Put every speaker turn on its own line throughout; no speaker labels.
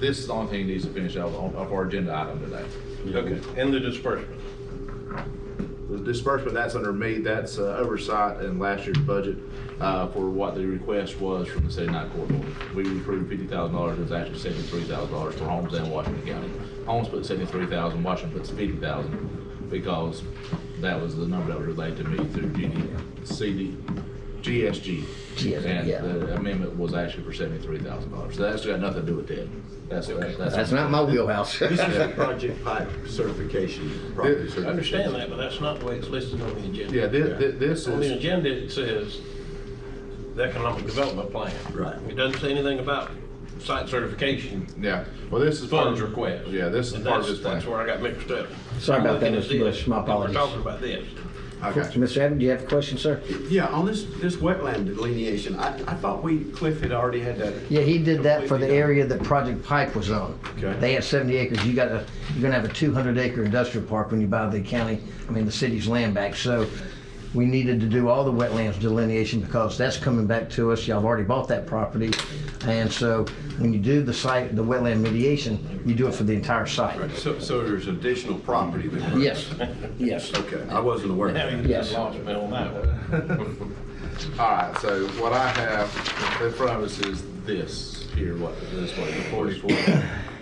This is the only thing that needs to finish out of of our agenda item today.
Okay, and the disbursement.
The disbursement, that's under me, that's uh, oversight in last year's budget uh, for what the request was from the 79 court order. We approved $50,000, it was actually $73,000 for Holmes and Washington County. Holmes put 73,000, Washington puts 50,000, because that was the number that was relayed to me through GD, CD, GSG.
GSG,
And
yeah.
the amendment was actually for $73,000, so that's got nothing to do with that. That's, that's.
That's not my wheelhouse.
This is a project pipe certification, property
I
certification.
understand that, but that's not the way it's listed on the agenda.
Yeah, thi- thi- this
On the
is,
agenda, it says the economic development plan.
Right.
It doesn't say anything about site certification,
yeah, well, this is. part of-
funds request.
Yeah, this is
And
part of
that's-
this plan.
That's where I got mixed up.
Sorry about that,
I'm looking at
Mr. Bush.
this,
My
and We're
apologies.
talking about this.
I got you.
Mr. Evans, do you have a question, sir?
Yeah, on this, this wetland delineation, I, I thought we, Cliff had already had that.
Yeah, he did that for the
completely
area that Project Pike was on.
Okay.
They had 70 acres. You got a, you're gonna have a 200 acre industrial park when you buy the county, I mean, the city's land back. So we needed to do all the wetlands delineation because that's coming back to us. Y'all have already bought that property. And so when you do the site, the wetland mediation, you do it for the entire site.
So, so there's additional property that. we're-
Yes, yes.
Okay, I wasn't aware of
Now
that.
you
Yes.
just lost me on that one.
All right, so what I have in front of us is this here, what, this, what, the forty-four?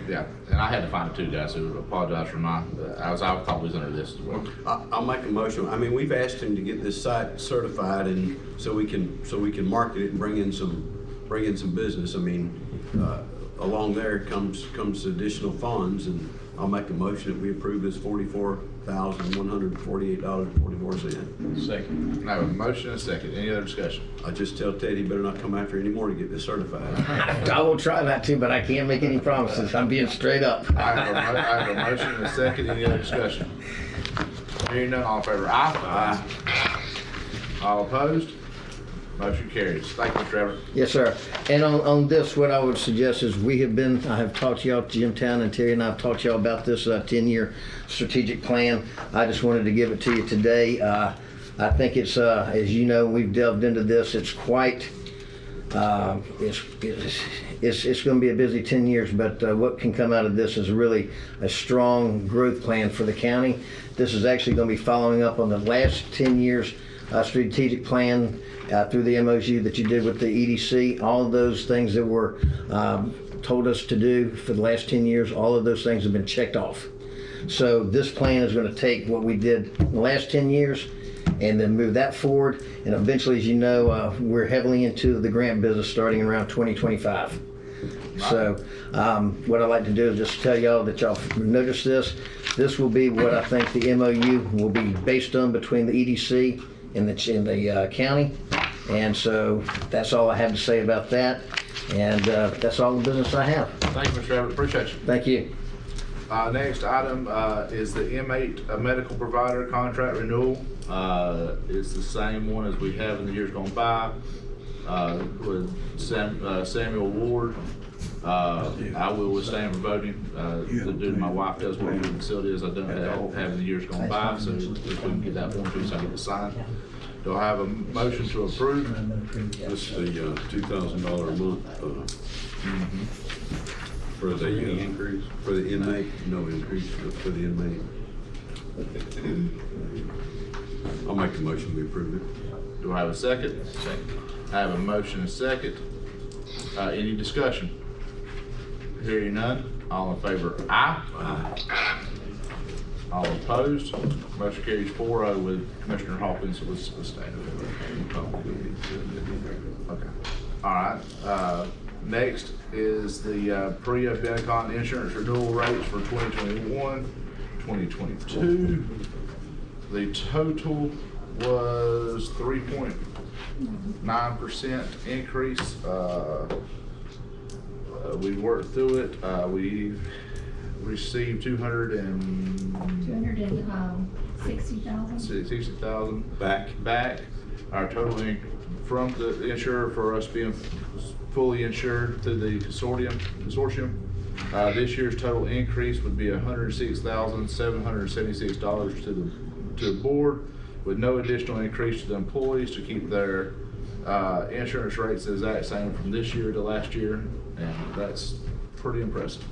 Yeah, and I had to find it too, guys, so apologize for my, I was, I thought it was under this as well.
I, I'll make a motion. I mean, we've asked him to get this site certified and so we can, so we can market it and bring in some, bring in some business. I mean, uh, along there comes, comes additional funds and I'll make a motion that we approve this forty-four thousand, one hundred and forty-eight dollars, forty-four cent.
Second.
I have a motion and a second, any other discussion?
I just tell Ted he better not come after anymore to get this certified.
I will try not to, but I can't make any promises. I'm being straight up.
I have a, mo- I have a motion and a second, any other discussion? Hearing none, all in favor, aye? Aye. All opposed? Motion carries, thank you, Trevor.
Yes, sir. And on, on this, what I would suggest is we have been, I have talked to y'all, Jim Town and Terry and I have talked to y'all about this uh, 10-year strategic plan. I just wanted to give it to you today. Uh, I think it's, uh, as you know, we've delved into this. It's quite, uh, it's, it's, it's, it's going to be a busy 10 years, but uh, what can come out of this is really a strong growth plan for the county. This is actually going to be following up on the last 10 years uh, strategic plan uh, through the MOU that you did with the EDC. All of those things that were um, told us to do for the last 10 years, all of those things have been checked off. So this plan is going to take what we did in the last 10 years and then move that forward. And eventually, as you know, uh, we're heavily into the grant business starting around 2025. So um, what I'd like to do is just tell y'all that y'all noticed this. This will be what I think the MOU will be based on between the EDC and the, and the uh, county. And so that's all I have to say about that. And uh, that's all the business I have.
Thank you, Mr. Trevor, appreciate you.
Thank you.
Uh, next item, uh, is the M8 uh, medical provider contract renewal. Uh, it's the same one as we have in the years gone by, uh, with Sam, uh, Samuel Ward. Uh, I will withstand for voting, uh, the dude, my wife does work in the facility as I don't have, have in the years gone by, so if we can get that one, please, I get to sign. Do I have a motion to approve?
This is the two thousand dollar a month uh, Mm-hmm. for the increase? For the inmate, no increase but for the inmate. I'll make the motion, we approve it.
Do I have a second? I have a motion and second. Uh, any discussion? Hearing none, all in favor, aye.
Aye.
All opposed, motion carries 4-0 with Commissioner Hawkins was abstaining. Okay, all right, uh, next is the, uh, Priya Benicon insurance renewal rates for 2021, 2022. The total was three point nine percent increase, uh, uh, we worked through it, uh, we received two hundred and
Two hundred and, um, sixty thousand.
sixty thousand
Back.
back. Our total in- from the insurer for us being fully insured through the consortium, consortium. Uh, this year's total increase would be hundred six thousand, seven hundred seventy-six dollars to the, to the board with no additional increase to the employees to keep their, uh, insurance rates the exact same from this year to last year. And that's pretty impressive.